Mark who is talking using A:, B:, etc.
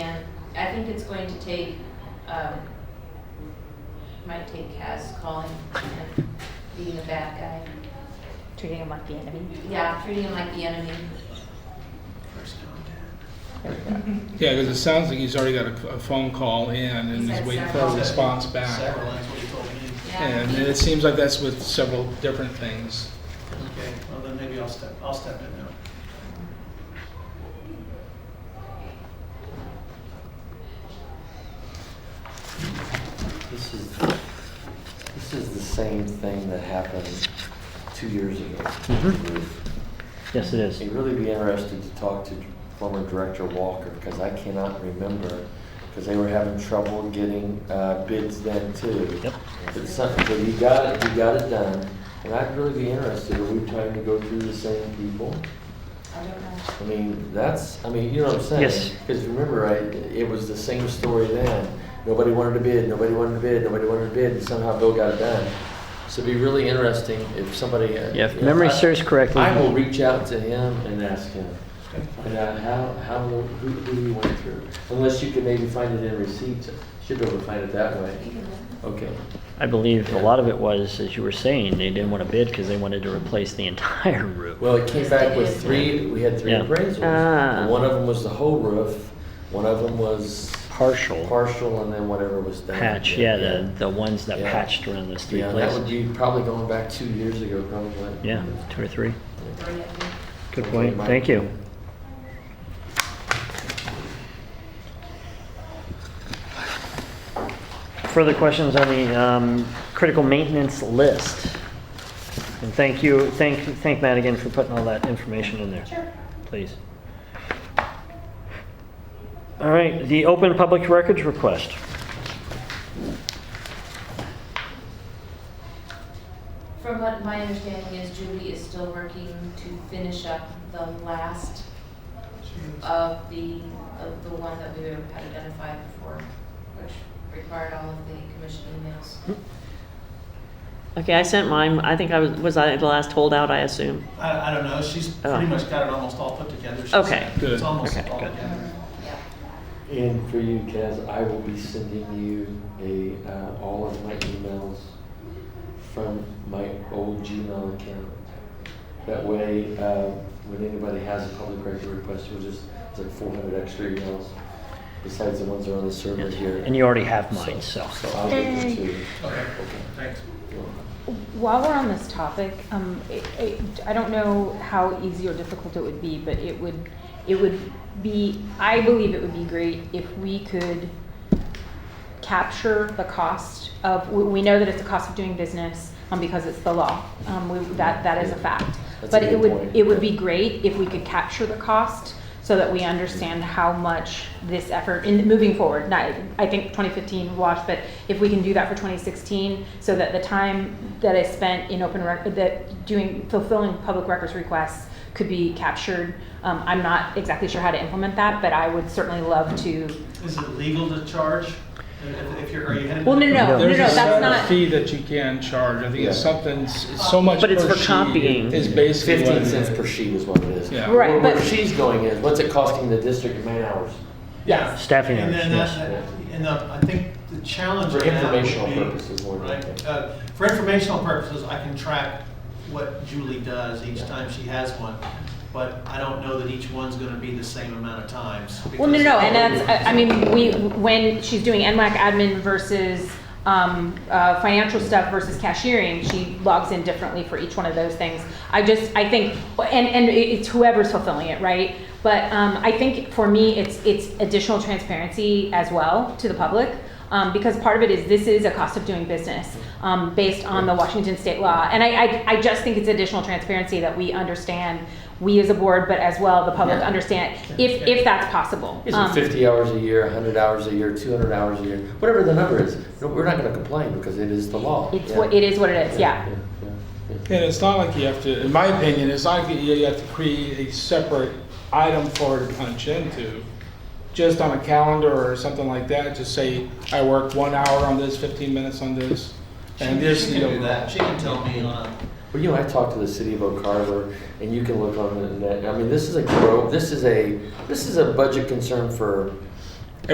A: I think it's going to take, um, might take Kaz calling and being a bad guy.
B: treating him like the enemy.
A: Yeah, treating him like the enemy.
C: First contact.
D: Yeah, because it sounds like he's already got a, a phone call in and
A: He's
D: he's
A: had
D: waiting for
A: several.
D: a response back.
C: Several, that's what he told me.
A: Yeah.
D: And it seems like that's with several different things.
C: Okay, well then maybe I'll step, I'll step in now.
E: This is, this is the same thing that happened two years ago.
F: Yes, it is.
E: I'd really be interested to talk to former director Walker, because I cannot remember, because they were having trouble getting uh, bids then too.
F: Yep.
E: But some- but you got it, you got it done, and I'd really be interested, are we trying to go through the same people?
A: I don't know.
E: I mean, that's, I mean, you know what I'm saying?
F: Yes.
E: Because remember, I, it was the same story then. Nobody wanted to bid, nobody wanted to bid, nobody wanted to bid, and somehow Bill got it done. So it'd be really interesting if somebody. uh,
F: Yeah, if memory
E: I-
F: serves correctly-
E: I will reach out to him and ask him, and uh, how, how, who, who you went through. Unless you could maybe find it in receipts, should be able to find it that way. Okay.
F: I believe a lot of it was, as you were saying, they didn't want to bid because they wanted to replace the entire roof.
E: Well, it came back with three, we had three
F: Yeah.
E: appraisals.
B: Ah.
E: One of them was the whole roof, one of them was
F: Partial.
E: partial, and then whatever was done.
F: Patch, yeah, the, the ones that
E: Yeah.
F: patched around those three
E: Yeah, that would
F: places.
E: be probably going back two years ago, probably.
F: Yeah, two or three.
A: Three, I think.
F: Good
E: Okay,
F: point,
E: Mike.
F: thank you. Further questions on the um, critical maintenance list? And thank you, thank, thank Matt again for putting all that information in there. Sure. Please. All right, the open public records request.
A: From what my understanding is Julie is still working to finish up the last of the, of the one that we had identified before, which required all of the commission emails.
G: Okay, I sent mine. I think I was, was I the last holdout, I assume?
C: I, I don't know, she's
G: Oh.
C: pretty much got it almost all put together. she
G: Okay.
C: said.
D: Good.
C: It's almost
G: Okay,
C: all
G: good.
C: together.
A: Yeah.
E: And for you, Kaz, I will be sending you a, uh, all of my emails from my old Gmail account. That way, uh, when anybody has a public record request, you'll just, it's like four hundred extra emails besides the ones that are on the server here.
F: And you already have mine, so.
E: So I'll get them to you.
C: Okay, thanks.
B: While we're on this topic, um, it, it, I don't know how easy or difficult it would be, but it would, it would be, I believe it would be great if we could capture the cost of, we, we know that it's a cost of doing business, um, because it's the law. Um, we, that, that is a fact.
E: That's a
B: But it
E: good
B: would,
E: point.
B: it would be great if we could capture the cost so that we understand how much this effort, in moving forward, not, I think 2015 wash, but if we can do that for 2016, so that the time that I spent in open rec, that doing, fulfilling public records requests could be captured. Um, I'm not exactly sure how to implement that, but I would certainly love to.
C: Is it legal to charge? If, if you're, are you headed?
B: Well, no, no, no, no,
D: There's
B: that's
D: a set
B: not.
D: fee that you can charge. I think it's
E: Yeah.
D: something, it's it's so much per
F: But
D: sheet.
F: it's for copying.
D: Is basically what it
E: Fifteen
D: is.
E: cents per sheet is what it is.
D: Yeah.
B: Right,
E: Where- Where
B: but-
E: she's going is, what's it costing the district in man hours?
C: Yeah.
F: Staffing
C: And then
F: hours,
C: that-
E: yes.
C: that- And uh, I think the challenge.
E: For
C: in that would
E: informational
C: be-
E: purposes more than
C: right,
E: anything.
C: uh, For informational purposes, I can track what Julie does each time she has one, but I don't know that each one's gonna be the same amount of times.
B: Well, no,
C: because-
B: no, and that's, uh, I- I mean, we, when she's doing NWAC admin versus um, uh, financial stuff versus cashiering, she logs in differently for each one of those things. I just, I think, and, and it's whoever's fulfilling it, right? But um, I think for me, it's, it's additional transparency as well to the public. Um, because part of it is this is a cost of doing business um, based on the Washington state law. And I, I, I just think it's additional transparency that we understand, we as a board, but as well the public
E: Yeah.
B: understand, if, if that's possible.
E: Is
B: Um,
E: it fifty hours a year, hundred hours a year, two hundred hours a year, whatever the number is? no, We're not gonna complain because it is the law.
B: It's what, it is what it is, yeah.
E: yeah, yeah.
D: And it's not like you have to, in my opinion, it's not like you have to create a separate item for her to punch into. Just on a calendar or something like that, just say, I work one hour on this, fifteen minutes on this,
C: She
D: and
C: she
D: this.
C: can
D: the
C: do
D: overall.
C: that, she can tell me uh, on, a-
E: Well, you know, I talked to the city of Oak Harbor, and you can look on the net. I mean, this is a grow. This is a this is a budget concern for